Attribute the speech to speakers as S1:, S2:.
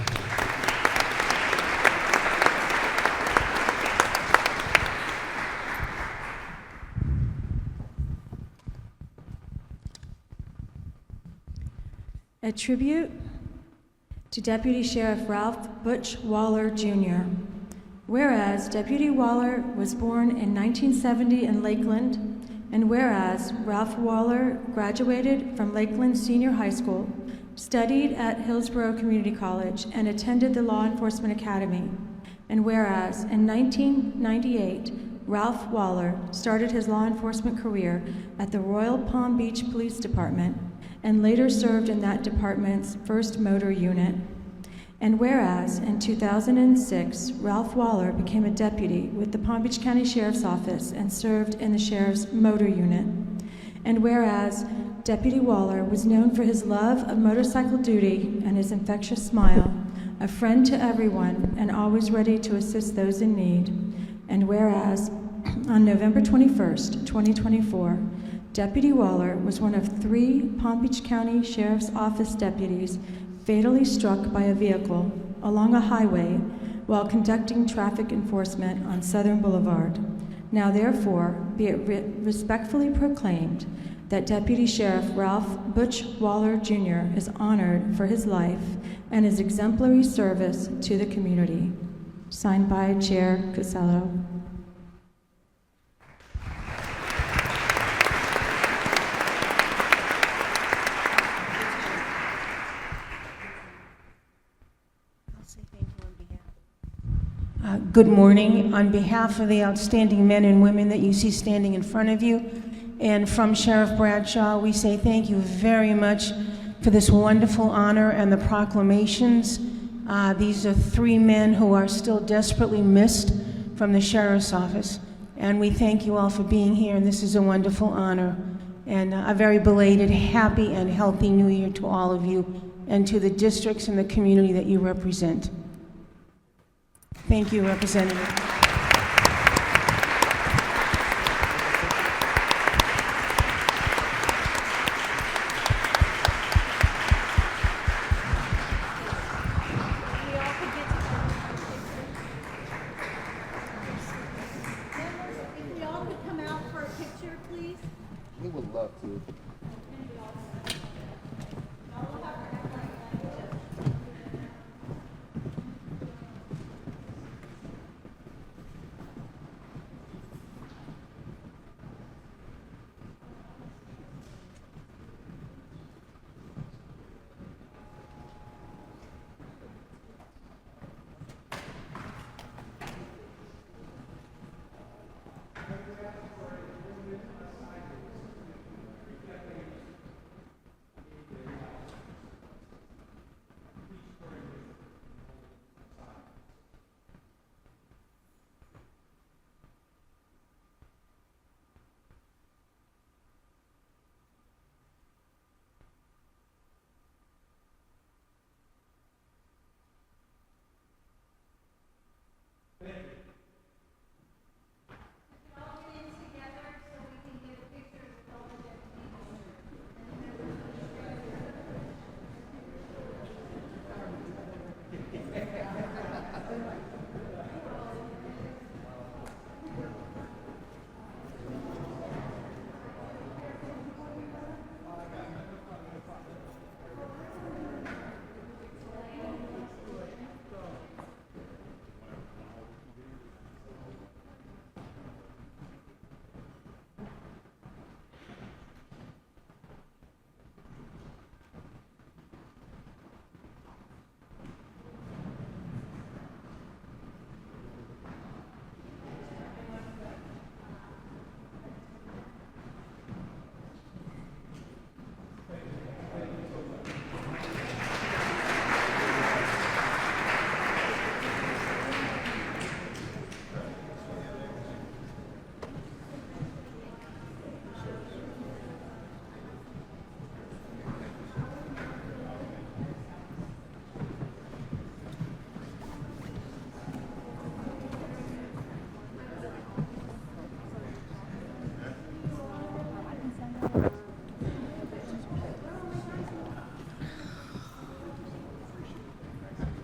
S1: A tribute to Deputy Sheriff Ralph Butch Waller Jr. Whereas Deputy Waller was born in 1970 in Lakeland, and whereas Ralph Waller graduated from Lakeland Senior High School, studied at Hillsborough Community College, and attended the Law Enforcement Academy, and whereas in 1998, Ralph Waller started his law enforcement career at the Royal Palm Beach Police Department and later served in that department's 1st Motor Unit. And whereas in 2006, Ralph Waller became a deputy with the Palm Beach County Sheriff's Office and served in the Sheriff's Motor Unit. And whereas Deputy Waller was known for his love of motorcycle duty and his infectious smile, a friend to everyone and always ready to assist those in need. And whereas on November 21st, 2024, Deputy Waller was one of three Palm Beach County Sheriff's Office deputies fatally struck by a vehicle along a highway while conducting traffic enforcement on Southern Boulevard. Now therefore, be it re- respectfully proclaimed that Deputy Sheriff Ralph Butch Waller Jr. is honored for his life and his exemplary service to the community. Signed by Chair Casello.
S2: I'll say thank you on behalf.
S3: Uh, Good morning. On behalf of the outstanding men and women that you see standing in front of you, and from Sheriff Bradshaw, we say thank you very much for this wonderful honor and the proclamations. Uh, These are three men who are still desperately missed from the sheriff's office, and we thank you all for being here, and this is a wonderful honor. And uh, a very belated, happy, and healthy new year to all of you, and to the districts and the community that you represent. Thank you, Representative.